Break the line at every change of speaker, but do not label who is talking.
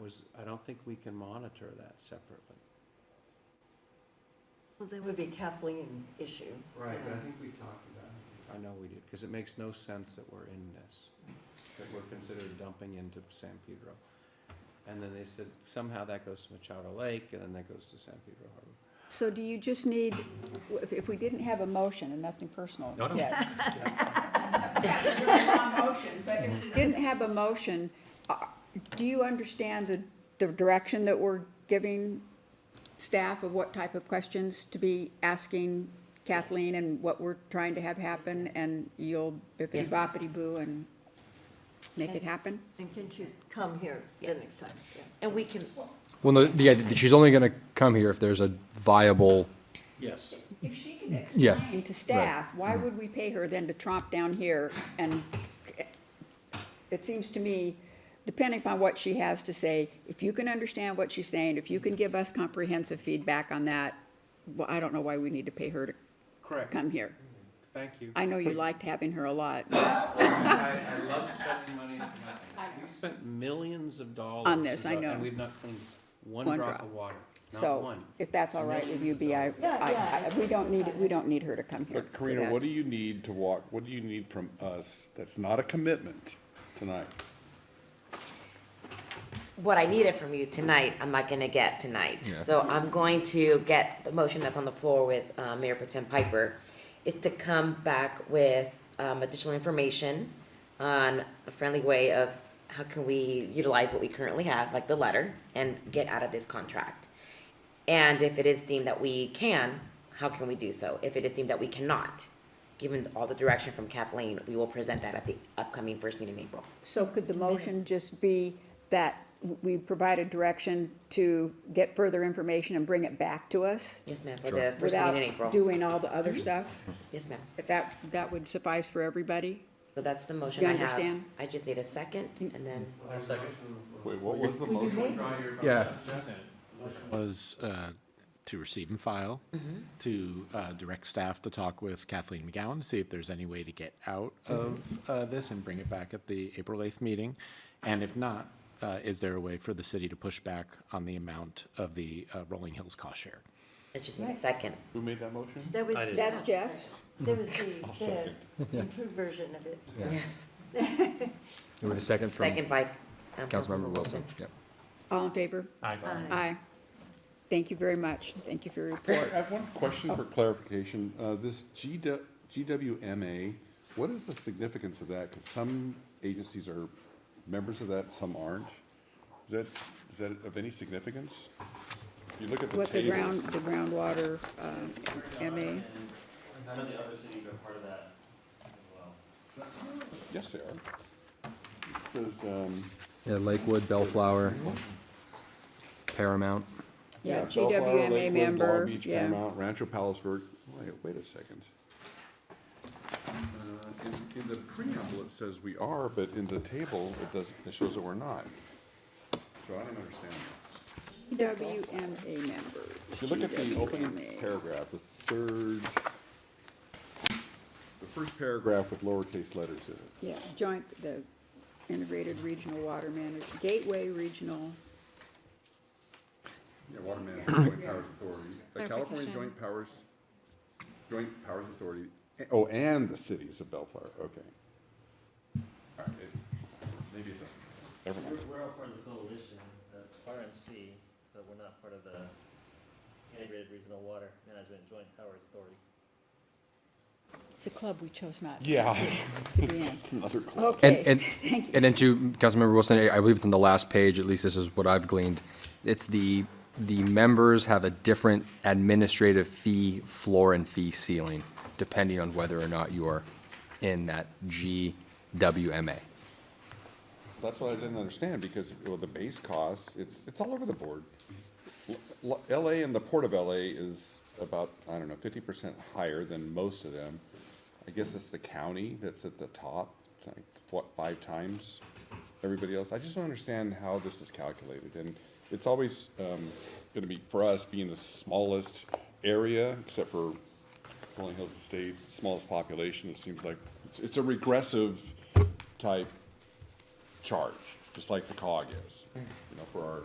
was, I don't think we can monitor that separately.
Well, that would be Kathleen issue. Um,
Right, but I think we talked about it. I know we did, because it makes no sense that we're in this, that we're considered dumping into San Pedro. And then they said somehow that goes to Machado Lake, and then that goes to San Pedro Harbor.
So do you just need, if, if we didn't have a motion, and nothing personal
No, no.
yet,
motion, but if we
didn't have a motion, uh, do you understand the, the direction that we're giving staff of what type of questions to be asking Kathleen and what we're trying to have happen, and you'll bippity boppity boo and make it happen?
And can you come here the next time? Yeah.
And we can,
Well, no, yeah, th- she's only going to come here if there's a viable.
Yes.
If she can
Yeah.
explain,
And to staff, why
Mm-hmm.
would we pay her then to tromp down here? And it seems to me, depending upon what she has to say, if you can understand what she's saying, if you can give us comprehensive feedback on that, well, I don't know why we need to pay her to
Correct.
come here.
Thank you.
I know you liked having her a lot
I, I love spending money. We spent millions of dollars.
On this, I
and-
know.
And we've not cleaned one
One
drop
drop.
of water, not
so
one.
if that's all right with you, B, I, I, I- we don't need, we don't need her to come here.
But Karina, what do you need to walk, what do you need from us that's not a commitment tonight?
what I needed from you tonight, I'm not gonna get tonight. So I'm going to get the motion that's on the floor with uh, Mayor Potem Piper, is to come back with um, additional information on a friendly way of how can we utilize what we currently have, like the letter, and get out of this contract. And if it is deemed that we can, how can we do so? If it is deemed that we cannot, given all the direction from Kathleen, we will present that at the upcoming first meeting in April.
So could the motion just be that we provide a direction to get further information and bring it back to us?
Yes, ma'am, for the first meeting in
Without
April.
doing all the other
Mm-hmm.
stuff?
Yes, ma'am.
That- That, that would suffice for everybody?
So that's the motion
You
I have.
understand?
I just need a second and then,
Wait, what was the motion?
Yeah.
was uh, to receive and file, to uh, direct staff to talk with Kathleen McGowan, to see if there's any way to get out of uh, this and bring it back at the April 8th meeting. And if not, uh, is there a way for the city to push back on the amount of the uh, Rolling Hills cost share?
I just need a second.
Who made that motion?
That was.
That's Jeff's?
That was the, the improved version of it.
Yes.
We have a second from
Second by. um,
Councilmember Wilson. Yep.
All in favor? Aye. Thank you very much. Thank you for your
I
report.
have one question for clarification. Uh, this GW, GWMA, what is the significance of that? Because some agencies are members of that, some aren't. Is that, is that of any significance? If you look at the
What the
table,
ground, the groundwater, uh, MA,
None of the other cities are part of that as well.
yes, they are. It says, um,
Yeah, Lakewood, Bellflower, Paramount.
yeah,
Bellflower,
GWMA
Lakewood, Long
member,
Beach,
yeah.
Paramount, Rancho Palos Verde, wait, wait a second. Uh, In, in the preamble, it says we are, but in the table, it does, it shows that we're not. So I don't understand.
GWMA members.
If you look at the opening
GWMA.
paragraph, the third, the first paragraph with lowercase letters in it.
Yeah, joint, the Integrated Regional Water Management, Gateway Regional,
Yeah, Water Management Joint Powers Authority, the California
Clarification.
Joint Powers, Joint Powers Authority, eh, oh, and the cities of Bellflower, okay. All right, it- Maybe it doesn't. Never
We're,
mind.
we're all part of the coalition, uh, the RMC, but we're not part of the Integrated Regional Water Management Joint Powers Authority.
it's a club we chose not
Yeah,
to be in.
another club.
Okay,
And, and,
thank you.
and then to Councilmember Wilson, I- I believe it's on the last page, at least this is what I've gleaned. It's the, the members have a different administrative fee floor and fee ceiling, depending on whether or not you are in that GWMA.
That's what I didn't understand, because, well, the base costs, it's, it's all over the board. L- L- LA and the Port of LA is about, I don't know, fifty percent higher than most of them. I guess it's the county that's at the top, like, what, five times everybody else? I just don't understand how this is calculated, and it's always, um, gonna be, for us, being the smallest area, except for Rolling Hills Estates, the smallest population, it seems like, it's, it's a regressive type charge. just like the cog is, you know, for our